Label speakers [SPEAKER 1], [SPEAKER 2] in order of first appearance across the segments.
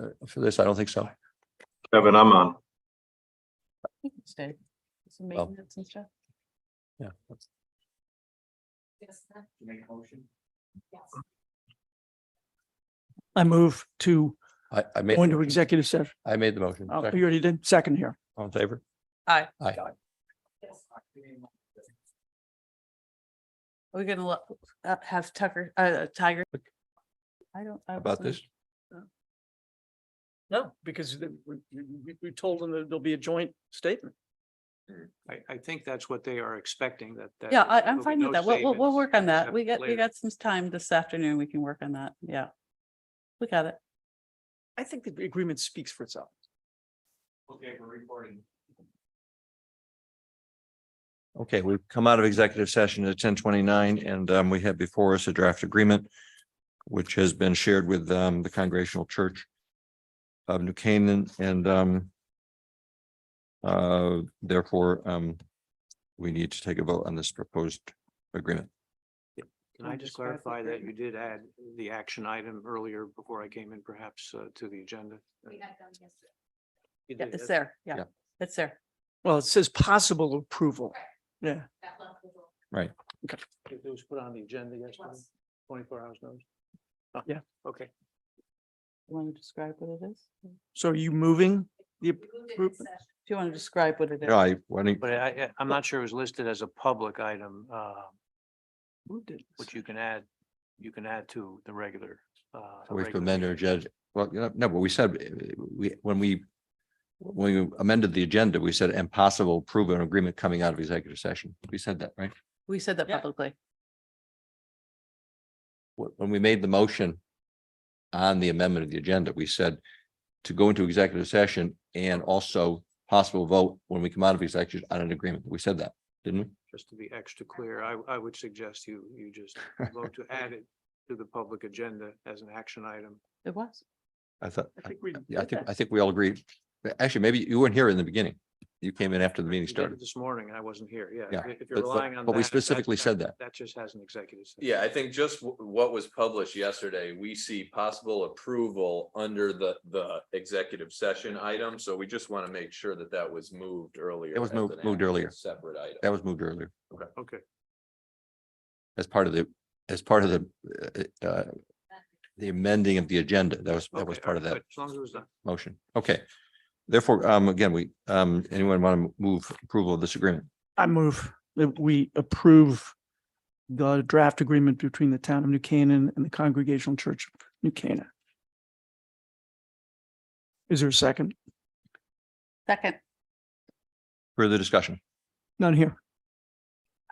[SPEAKER 1] uh, for this? I don't think so.
[SPEAKER 2] Seven, I'm on.
[SPEAKER 3] You can stay. Some
[SPEAKER 1] Well.
[SPEAKER 3] maintenance and stuff.
[SPEAKER 1] Yeah.
[SPEAKER 4] I move to
[SPEAKER 1] I, I made,
[SPEAKER 4] go into executive session.
[SPEAKER 1] I made the motion.
[SPEAKER 4] Oh,
[SPEAKER 1] Second.
[SPEAKER 4] you already did. Second here.
[SPEAKER 1] All in favor?
[SPEAKER 3] Aye.
[SPEAKER 1] Aye.
[SPEAKER 3] We're gonna let, uh, have Tucker, uh, uh, Tiger. I don't. I
[SPEAKER 1] About
[SPEAKER 3] wasn't-
[SPEAKER 1] this?
[SPEAKER 4] No, because the- we, we, we told them that there'll be a joint statement.
[SPEAKER 5] Hmm, I, I think that's what they are expecting that. that
[SPEAKER 3] Yeah, I,
[SPEAKER 5] there
[SPEAKER 3] I'm
[SPEAKER 5] will be
[SPEAKER 3] fine
[SPEAKER 5] no
[SPEAKER 3] with that. We'll, we'll, we'll
[SPEAKER 5] statements
[SPEAKER 3] work on that.
[SPEAKER 5] except
[SPEAKER 3] We got, we
[SPEAKER 5] later.
[SPEAKER 3] got some time this afternoon. We can work on that. Yeah. We got it.
[SPEAKER 4] I think the agreement speaks for itself.
[SPEAKER 5] Okay, we're recording.
[SPEAKER 1] Okay, we've come out of executive session at ten twenty-nine and um, we have before us a draft agreement, which has been shared with um, the Congregational Church of New Canaan and um, uh, therefore, um, we need to take a vote on this proposed agreement.
[SPEAKER 5] Can I just clarify that you did add the action item earlier before I came in perhaps uh, to the agenda? We had done
[SPEAKER 3] Yeah,
[SPEAKER 5] yesterday.
[SPEAKER 3] it's there. Yeah,
[SPEAKER 1] Yeah.
[SPEAKER 3] it's there.
[SPEAKER 4] Well, it says possible approval. Yeah.
[SPEAKER 5] It was put on the agenda yesterday, twenty-four hours notice. Oh,
[SPEAKER 4] Yeah.
[SPEAKER 5] Okay.
[SPEAKER 3] You want to describe what it is? Do
[SPEAKER 4] So are you moving? the appro-
[SPEAKER 3] you want to describe what it is?
[SPEAKER 1] Yeah, I, why don't you-
[SPEAKER 5] But I, I- I'm not sure it was listed as a public item, uh,
[SPEAKER 4] Moved it.
[SPEAKER 5] which you can add, you can add to the regular.
[SPEAKER 1] We
[SPEAKER 5] uh,
[SPEAKER 1] have to
[SPEAKER 5] regular
[SPEAKER 1] amend or
[SPEAKER 5] meeting.
[SPEAKER 1] judge, well, you know, no, but we said, uh, we, when we, when we amended the agenda, we said and possible approval and agreement coming out of executive session. We said that, right?
[SPEAKER 3] We said that
[SPEAKER 4] Yeah.
[SPEAKER 3] publicly.
[SPEAKER 1] Wh- When we made the motion on the amendment of the agenda, we said to go into executive session and also possible vote when we come out of executive on an agreement. We said that, didn't we?
[SPEAKER 5] Just to be extra clear, I, I would suggest you, you just vote to add it to the public agenda as an action item.
[SPEAKER 3] It was.
[SPEAKER 1] I thought,
[SPEAKER 4] I think we,
[SPEAKER 1] yeah, I think, I think we all agreed. Actually, maybe you weren't here in the beginning. You came in after the meeting
[SPEAKER 5] You did it
[SPEAKER 1] started.
[SPEAKER 5] This morning, I wasn't here, yeah.
[SPEAKER 1] Yeah,
[SPEAKER 5] If
[SPEAKER 1] but-
[SPEAKER 5] you're
[SPEAKER 1] but-
[SPEAKER 5] relying on that.
[SPEAKER 1] but we
[SPEAKER 5] that-
[SPEAKER 1] specifically said that.
[SPEAKER 5] That just has an executive. session.
[SPEAKER 6] Yeah, I think just wh- what was published yesterday, we see possible approval under the, the executive session item. So we just want to make sure that that was moved earlier.
[SPEAKER 1] It was
[SPEAKER 6] as
[SPEAKER 1] moved-
[SPEAKER 6] an
[SPEAKER 1] moved
[SPEAKER 6] actual
[SPEAKER 1] earlier.
[SPEAKER 6] Separate item.
[SPEAKER 1] That was moved earlier.
[SPEAKER 5] Okay.
[SPEAKER 1] as part of the, as part of the, uh, uh, the amending of the agenda. That was, that was
[SPEAKER 5] okay,
[SPEAKER 1] part of
[SPEAKER 5] alright,
[SPEAKER 1] that
[SPEAKER 5] good, As long as it was done.
[SPEAKER 1] motion. Okay. Therefore, um, again, we, um, anyone want to move approval of this agreement?
[SPEAKER 4] I move that we approve the draft agreement between the town of New Canaan and the Congregational Church of New Canaan. Is there a second?
[SPEAKER 3] Second.
[SPEAKER 1] Further discussion?
[SPEAKER 4] None here.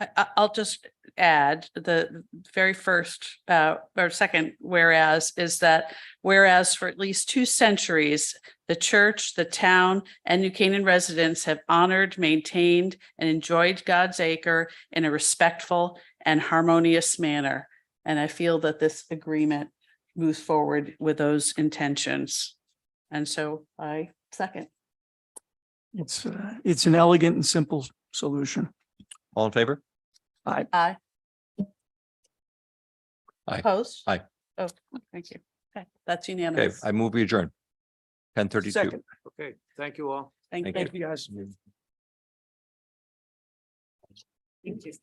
[SPEAKER 3] I, I- I'll just add the very first, uh, or second whereas is that whereas for at least two centuries, the church, the town, and New Canaan residents have honored, maintained, and enjoyed God's acre in a respectful and harmonious manner. And I feel that this agreement moves forward with those intentions. And so I second.
[SPEAKER 4] It's, uh, it's an elegant and simple solution.
[SPEAKER 1] All in favor?
[SPEAKER 3] Aye.
[SPEAKER 1] Aye.
[SPEAKER 3] Opposed?
[SPEAKER 1] Aye.
[SPEAKER 3] Oh, thank you. Okay, that's
[SPEAKER 1] Okay,
[SPEAKER 3] unanimous.
[SPEAKER 1] I move we adjourn. Ten thirty-two.
[SPEAKER 4] Second.
[SPEAKER 5] Okay, thank you all.
[SPEAKER 3] Thank
[SPEAKER 1] thank
[SPEAKER 3] you.
[SPEAKER 4] Thank you, guys.